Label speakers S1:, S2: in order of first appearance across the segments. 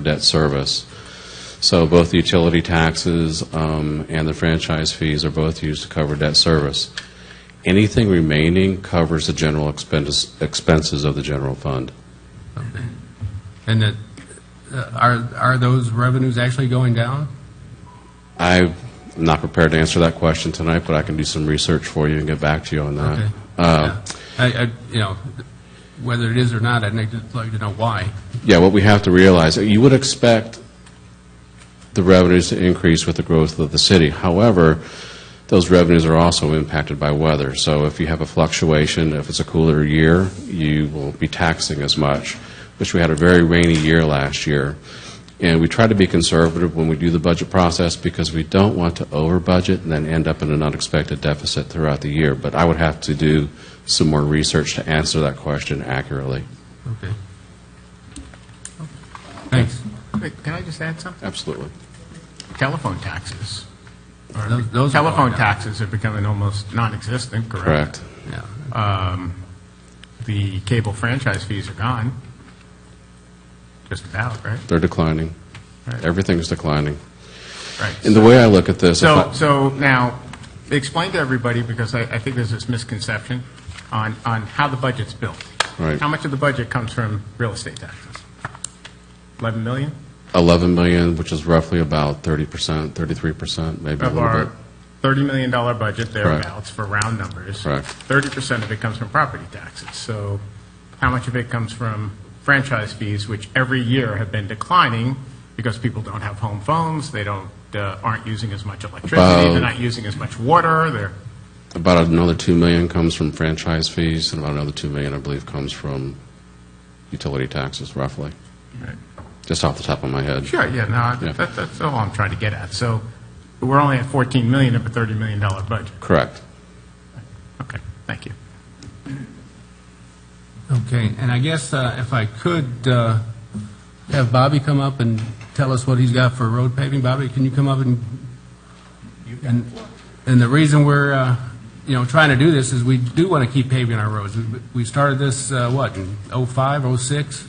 S1: debt service. So both the utility taxes um, and the franchise fees are both used to cover debt service. Anything remaining covers the general expendis- expenses of the general fund.
S2: And that, uh, are, are those revenues actually going down?
S1: I'm not prepared to answer that question tonight, but I can do some research for you and get back to you on that.
S2: Okay.
S1: Uh,
S2: I, I, you know, whether it is or not, I'd like to- like to know why.
S1: Yeah, what we have to realize, you would expect the revenues to increase with the growth of the city. However, those revenues are also impacted by weather. So if you have a fluctuation, if it's a cooler year, you will be taxing as much, which we had a very rainy year last year. And we try to be conservative when we do the budget process because we don't want to over-budget and then end up in an unexpected deficit throughout the year. But I would have to do some more research to answer that question accurately.
S2: Okay. Thanks.
S3: Wait, Can I just add something?
S1: Absolutely.
S3: Telephone taxes.
S2: Or those- those are going
S3: Telephone
S2: down.
S3: taxes are becoming almost non-existent, correct? Um,
S1: Correct.
S2: Yeah.
S3: The cable franchise fees are gone, just about, right?
S1: They're declining.
S3: Right.
S1: Everything's declining.
S3: Right.
S1: And the way I look at this, if
S3: So,
S1: I-
S3: so now, explain to everybody, because I, I think there's this misconception on, on how the budget's built.
S1: Right.
S3: How much of the budget comes from real estate taxes? 11 million
S1: 11 million, which is roughly about 30%, 33%, maybe a
S3: of
S1: little bit.
S3: our $30 million budget thereabouts for round numbers.
S1: Correct.
S3: 30% of it comes from property taxes. So how much of it comes from franchise fees, which every year have been declining because people don't have home phones, they don't, uh, aren't using as much electricity, they're
S1: About-
S3: not using as much water, they're,
S1: About another 2 million comes from franchise fees, and about another 2 million, I believe, comes from utility taxes, roughly. Just off the top of my head.
S3: Sure, yeah, no,
S1: Yeah.
S3: I- that- that's all I'm trying to get at. So we're only at 14 million of a $30 million budget.
S1: Correct.
S3: Okay, thank you.
S2: Okay, and I guess uh, if I could uh, have Bobby come up and tell us what he's got for road paving. Bobby, can you come up and, and, and the reason we're, uh, you know, trying to do this is we do want to keep paving our roads. We- We started this, uh, what, in '05, '06?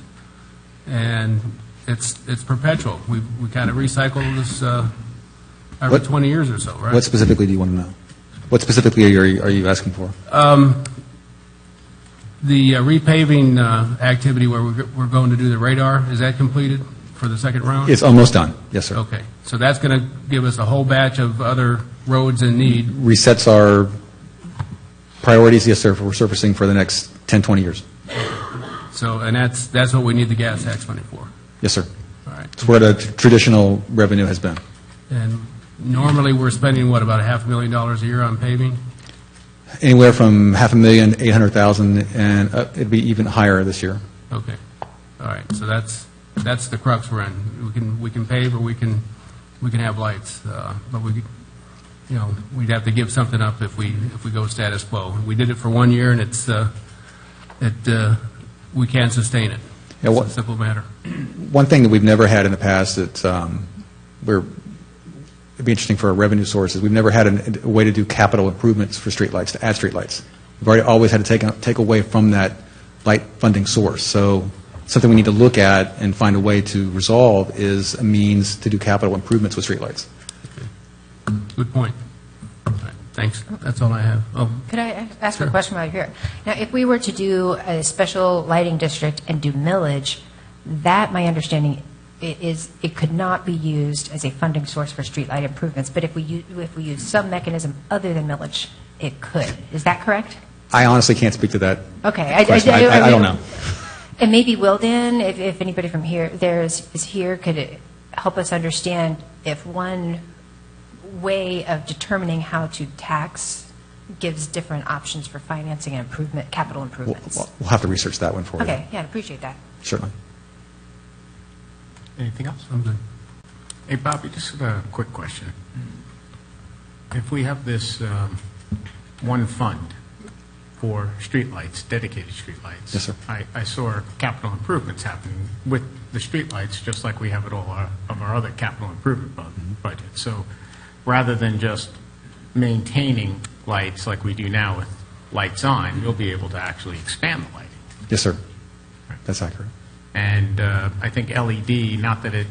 S2: And it's, it's perpetual. We, we kind of recycle this uh, every
S4: What-
S2: 20 years or so, right?
S4: What specifically do you want to know? What specifically are you, are you asking for?
S2: The uh, repaving uh, activity where we're we're going to do the radar, is that completed for the second round?
S4: It's almost done, yes, sir.
S2: Okay, so that's going to give us a whole batch of other roads in need.
S4: Resets our priorities, yes, sir, for surfacing for the next 10, 20 years.
S2: So, and that's, that's what we need the gas tax money for.
S4: Yes, sir.
S2: All right.
S4: It's where the tr- traditional revenue has been.
S2: And normally, we're spending, what, about a half a million dollars a year on paving?
S4: Anywhere from half a million, 800,000, and uh, it'd be even higher this year.
S2: Okay, all right, so that's, that's the crux we're in. We can, we can pave or we can, we can have lights, uh, but we, you know, we'd have to give something up if we, if we go status quo. We did it for one year, and it's, uh, it, uh, we can't sustain it.
S4: Yeah, what-
S2: It's a simple matter.
S4: One thing that we've never had in the past that um, we're, it'd be interesting for our revenue sources, we've never had an- a way to do capital improvements for streetlights, to add streetlights. We've already always had to take, out- take away from that light funding source. So something we need to look at and find a way to resolve is a means to do capital improvements with streetlights.
S2: Good point. All right, Thanks, that's all I have. Oh,
S5: Could I ask a question while you're here? Now, if we were to do a special lighting district and do millage, that, my understanding, i- is it could not be used as a funding source for streetlight improvements, but if we, u- if we use some mechanism other than millage, it could. Is that correct?
S4: I honestly can't speak to that.
S5: Okay. I- I-
S4: question.
S5: I- I-
S4: I don't know.
S5: And maybe Wilden, if, if anybody from here, there is, is here, could it help us understand if one way of determining how to tax gives different options for financing and improvement, capital
S4: We'll
S5: improvements?
S4: we'll- we'll have to research that one for you.
S5: Okay, yeah, I'd appreciate that.
S4: Certainly.
S3: Anything else?
S2: I'm good.
S3: Hey, Bobby, just a quick question. If we have this um, one fund for streetlights, dedicated streetlights.
S4: Yes, sir.
S3: I, I saw capital improvements happening with the streetlights, just like we have at all our- of our other capital improvement
S4: Mm-hmm.
S3: bu- budget. So rather than just maintaining lights like we do now with lights on, you'll be able to actually expand the lighting.
S4: Yes, sir. That's accurate.
S3: And uh, I think LED, not that it